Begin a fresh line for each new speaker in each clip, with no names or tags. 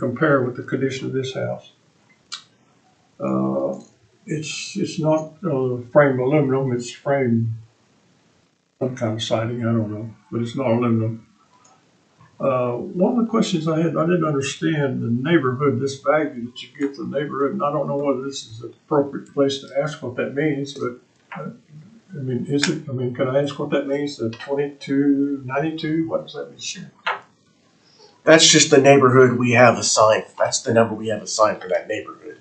compare with the condition of this house. Uh, It's, it's not uh, framed aluminum, it's framed some kind of siding, I don't know, but it's not aluminum. Uh, One of the questions I had, I didn't understand the neighborhood, this value that you give the neighborhood, and I don't know whether this is an appropriate place to ask what that means, but uh, I mean, is it, I mean, can I ask what that means, the twenty-two ninety-two, what does that mean?
That's just the neighborhood we have assigned. That's the number we have assigned for that neighborhood.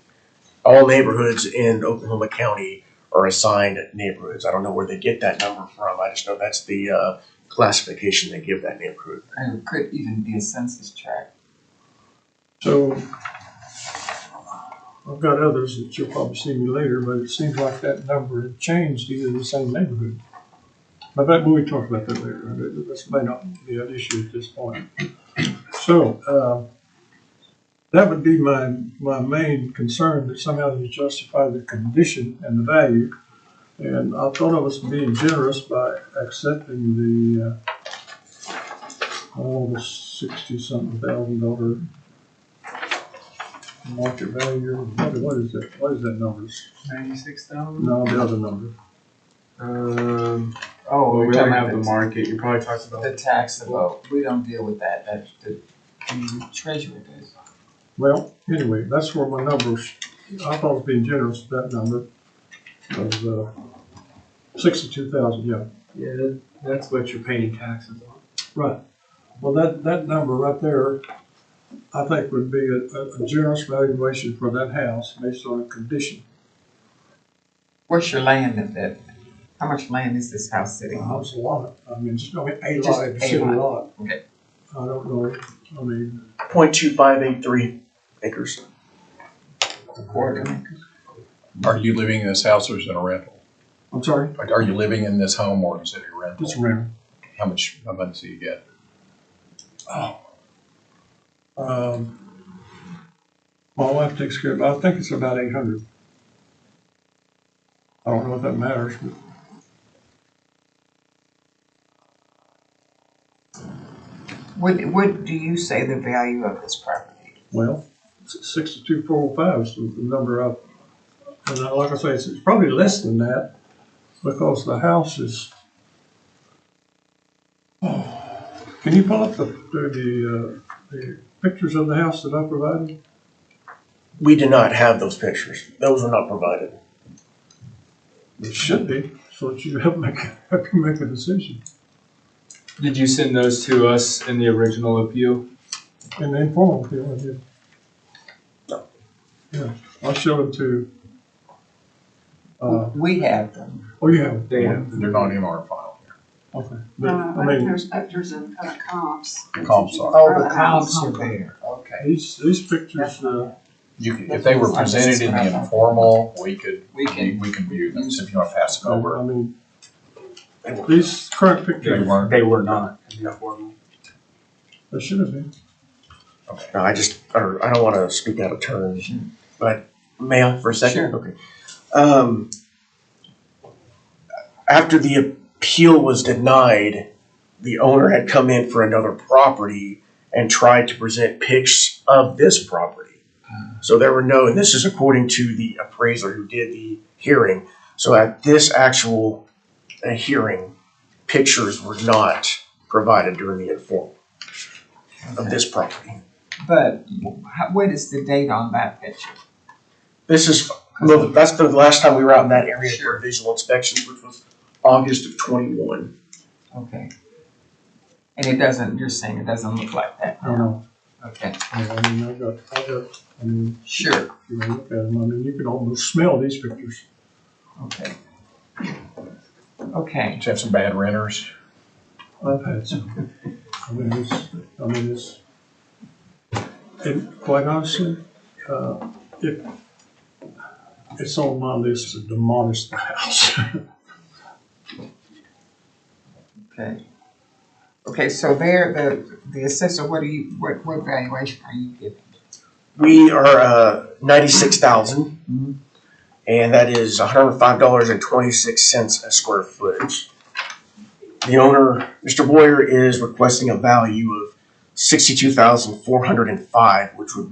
All neighborhoods in Oklahoma County are assigned neighborhoods. I don't know where they get that number from. I just know that's the uh, classification they give that neighborhood.
And it could even be a census tract.
So I've got others that you'll probably see me later, but it seems like that number had changed either in the same neighborhood. But that, we'll talk about that later. That- This may not be an issue at this point. So, uh, that would be my, my main concern that somehow you justify the condition and the value. And I thought I was being generous by accepting the, uh, oh, the sixty-something thousand dollar market value, what, what is that, what is that number?
Ninety-six thousand?
No, the other number.
Um,
Oh,
well,
we're
we
talking
don't
about
have the
the,
market, you probably talked about.
the taxable, we don't deal with that, that, the, the treasurer does.
Well, anyway, that's where my numbers, I thought I was being generous with that number. Of, uh, sixty-two thousand, yeah.
Yeah, that- that's what you're paying taxes on.
Right. Well, that, that number right there, I think would be a, a- a generous valuation for that house based on a condition.
What's your land in that, how much land is this house sitting
Uh,
on?
It's a lot, I mean, it's, I mean, a
Just
lot,
a
it's a
lot.
lot.
Okay.
I don't know, I mean,
Point two five eight three acres.
A quarter acre?
Are you living in this house or is it a rental?
I'm sorry,
Like, Are you living in this home or is it a
it's
rental?
around,
How much, how much do you get?
Oh. um, my wife takes care of, it. I think it's about eight hundred. I don't know if that matters, but
What, what do you say the value of this property?
Well, sixty-two, four oh five is the the number of, and I- like I say, it's, it's probably less than that, because the house is. Can you pull up the, the, uh, the pictures of the house that I provided?
We do not have those pictures. Those were not provided.
It should be, so that you help make, help you make a decision,
Did you send those to us in the original appeal?
and informal, if you want to. Yeah, I'll show them to, uh,
We have them.
oh, you have.
They have.
They're not in our file here.
Okay, but,
Uh,
I
I think
mean,
there's pictures of, of comps.
The comps are.
Oh, the
house.
comps are there, okay.
these, these pictures, uh,
You, can- if they were presented in the informal, we could,
We
we
can,
we can view them, so if you want to pass them
I
over.
mean, these current pictures,
weren't.
They were not in the formal.
there should have been.
No, I just, or I don't want to speak out of turn, but may I for a second?
Sure.
Okay. Um, after the appeal was denied, the owner had come in for another property and tried to present pics of this property. So there were no, and this is according to the appraiser who did the hearing. So at this actual uh, hearing, pictures were not provided during the informal of this property.
but wh- how- what is the date on that picture?
This is, well, that's the last time we were out in that area for
Sure.
visual inspections, which was August of twenty-one.
Okay. And it doesn't, you're saying it doesn't look like that,
I don't know.
okay,
I mean, I mean, I got, I got, I mean,
sure.
if you wanna look at them, I mean, you can almost smell these pictures.
Okay. Okay,
Did you have some bad renters?
I've had some. I mean, it's, I mean, it's, and quite honestly, uh, it, it's on my list to demolish the house.
okay. Okay, so there, the, the assessor, what do you, what, what valuation are you giving?
We are, uh, ninety-six thousand.
Mhm.
And that is hundred and five dollars and twenty-six cents a square foot. The owner, Mr. Boyer, is requesting a value of sixty-two thousand four hundred and five, which would